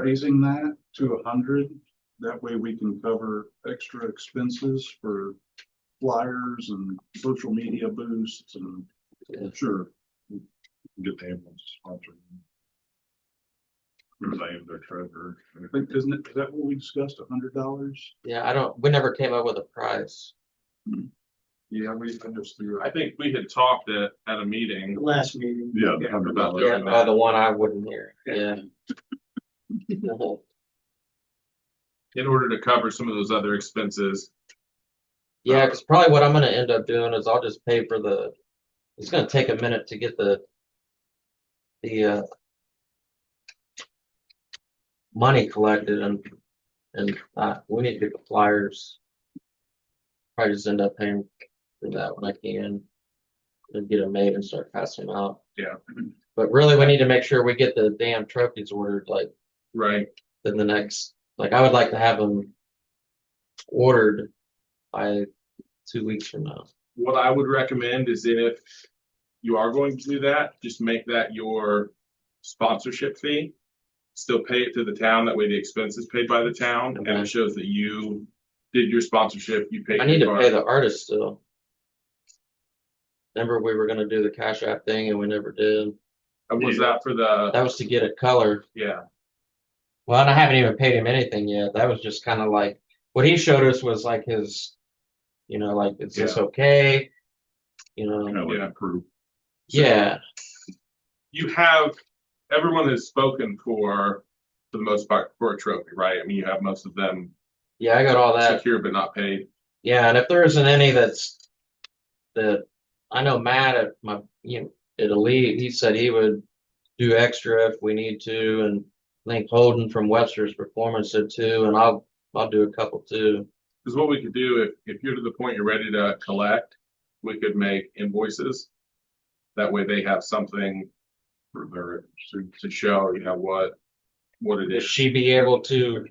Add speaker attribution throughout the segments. Speaker 1: raising that to a hundred. That way we can cover extra expenses for flyers and social media boosts and
Speaker 2: Yeah.
Speaker 1: sure. we can Get the ambulance sponsored. Or I am their treasurer. I think, isn't it, is that what we discussed, a hundred dollars?
Speaker 2: Yeah, I don't, we never came up with a price.
Speaker 1: Yeah, we, I just threw.
Speaker 3: I think we had talked at, at a meeting.
Speaker 4: Last meeting.
Speaker 1: Yeah,
Speaker 3: Yeah,
Speaker 1: hundred
Speaker 3: about
Speaker 1: dollars.
Speaker 2: Yeah,
Speaker 3: that.
Speaker 2: uh, the one I wouldn't hear, Uh-huh. yeah.
Speaker 3: in order to cover some of those other expenses.
Speaker 2: Yeah, cause probably what I'm gonna end up doing is I'll just pay for the, it's gonna take a minute to get the, the, uh, money collected and, and, uh, we need to get the flyers. Probably just end up paying for that when I can. And get them made and start passing them out.
Speaker 3: Yeah.
Speaker 2: But really, we need to make sure we get the damn trophies ordered like
Speaker 3: Right.
Speaker 2: than the next, like, I would like to have them ordered by two weeks from now.
Speaker 3: What I would recommend is if you are going to do that, just make that your sponsorship fee. Still pay it to the town. That way the expense is paid by the town and
Speaker 2: Okay.
Speaker 3: it shows that you did your sponsorship, you paid.
Speaker 2: I need
Speaker 3: your
Speaker 2: to pay
Speaker 3: part.
Speaker 2: the artist still. Remember, we were gonna do the Cash App thing and we never did.
Speaker 3: And was that for the,
Speaker 2: That was to get it colored.
Speaker 3: yeah,
Speaker 2: Well, and I haven't even paid him anything yet. That was just kind of like, what he showed us was like his, you know, like, is this okay? You know,
Speaker 3: yeah.
Speaker 2: yeah,
Speaker 3: You have, everyone has spoken for, for the most part, for a trophy, right? I mean, you have most of them
Speaker 2: yeah, I got all that.
Speaker 3: secure but not paid.
Speaker 2: Yeah, and if there isn't any that's that I know Matt at my you know, at Elite, he said he would do extra if we need to, and I think Holden from Webster's Performance said too, and I'll I'll do a couple too.
Speaker 3: Because what we could do, if, if you're to the point you're ready to collect, we could make invoices. That way they have something for their, to, to show, you know, what, what it
Speaker 2: Would
Speaker 3: is.
Speaker 2: she be able to?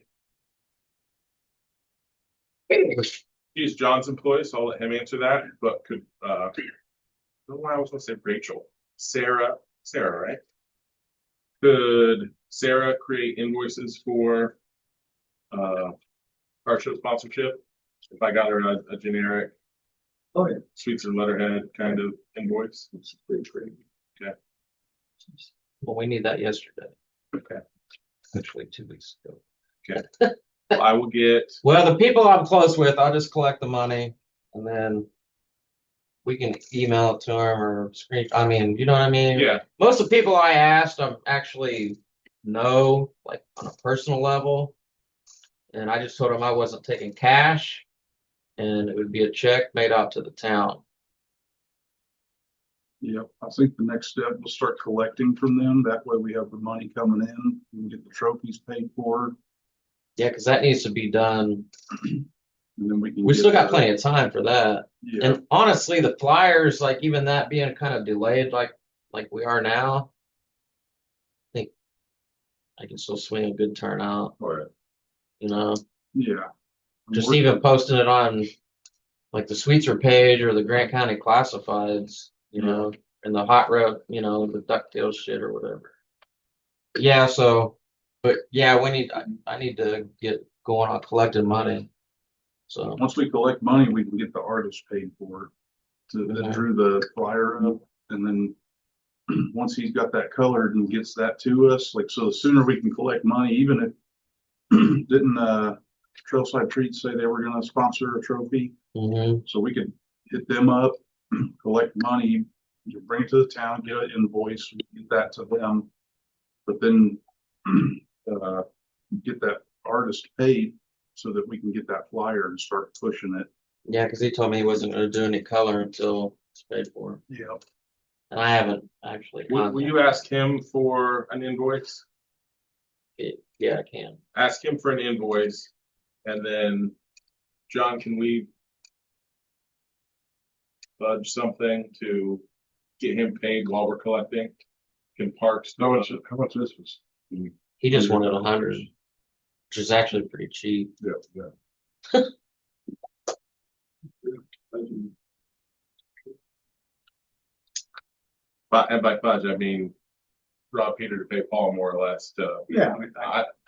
Speaker 3: He's John's employee, so I'll let him answer that, but could, uh, I don't know why I was gonna say Rachel, Sarah, Sarah, right? Could Sarah create invoices for, uh, our show sponsorship? If I got her a, a generic
Speaker 4: Oh, yeah.
Speaker 3: sweets and letterhead kind of invoice?
Speaker 4: It's pretty great.
Speaker 2: Well, we need that yesterday,
Speaker 3: Okay.
Speaker 2: actually two weeks ago.
Speaker 3: Well, I will get,
Speaker 2: Well, the people I'm close with, I'll just collect the money and then we can email it to them or screen. I mean, you know what I mean?
Speaker 3: yeah,
Speaker 2: most of the people I asked, I'm actually know, like on a personal level. And I just told them I wasn't taking cash and it would be a check made out to the town.
Speaker 1: Yep, I think the next step, we'll start collecting from them. That way we have the money coming in, we can get the trophies paid for,
Speaker 2: Yeah, because that needs to be done.
Speaker 1: and then we can.
Speaker 2: We
Speaker 1: get
Speaker 2: still got
Speaker 1: the-
Speaker 2: plenty of time for that.
Speaker 1: Yeah,
Speaker 2: And honestly, the flyers, like even that being kind of delayed, like like we are now, I think I can still swing a good turnout,
Speaker 1: or,
Speaker 2: you know.
Speaker 1: yeah.
Speaker 2: just
Speaker 1: We're-
Speaker 2: even posting it on like the Sweetser page or the Grant County Classifieds, you
Speaker 1: Yeah.
Speaker 2: know, and the hot rod, you know, the ducktail shit or whatever. Yeah, so, but yeah, we need, I, I need to get going on collecting money. So,
Speaker 1: Once we collect money, we can get the artist paid for. To, that
Speaker 2: Okay.
Speaker 1: drew the flyer up and then. Once he's got that colored and gets that to us, like, so the sooner we can collect money, even if. Didn't, uh, Trailside Treats say they were gonna sponsor a trophy?
Speaker 2: mhm.
Speaker 1: So we could hit them up, collect money, you bring it to the town, get an invoice, get that to them. But then, uh, get that artist paid so that we can get that flyer and start pushing it.
Speaker 2: yeah, because he told me he wasn't going to do any color until it's paid for.
Speaker 1: Yep.
Speaker 2: And I haven't actually.
Speaker 3: will, will you
Speaker 2: contacted-
Speaker 3: ask him for an invoice?
Speaker 2: Yeah, I can.
Speaker 3: ask him for an invoice, and then, John, can we budge something to get him paid while we're collecting? Can Parks?
Speaker 1: How much, how much this was?
Speaker 2: He just wanted a hundred, which is actually pretty cheap.
Speaker 1: Yeah, yeah.
Speaker 3: But, and by budge, I mean, rob Peter to pay Paul more or less to,
Speaker 4: Yeah.
Speaker 3: I,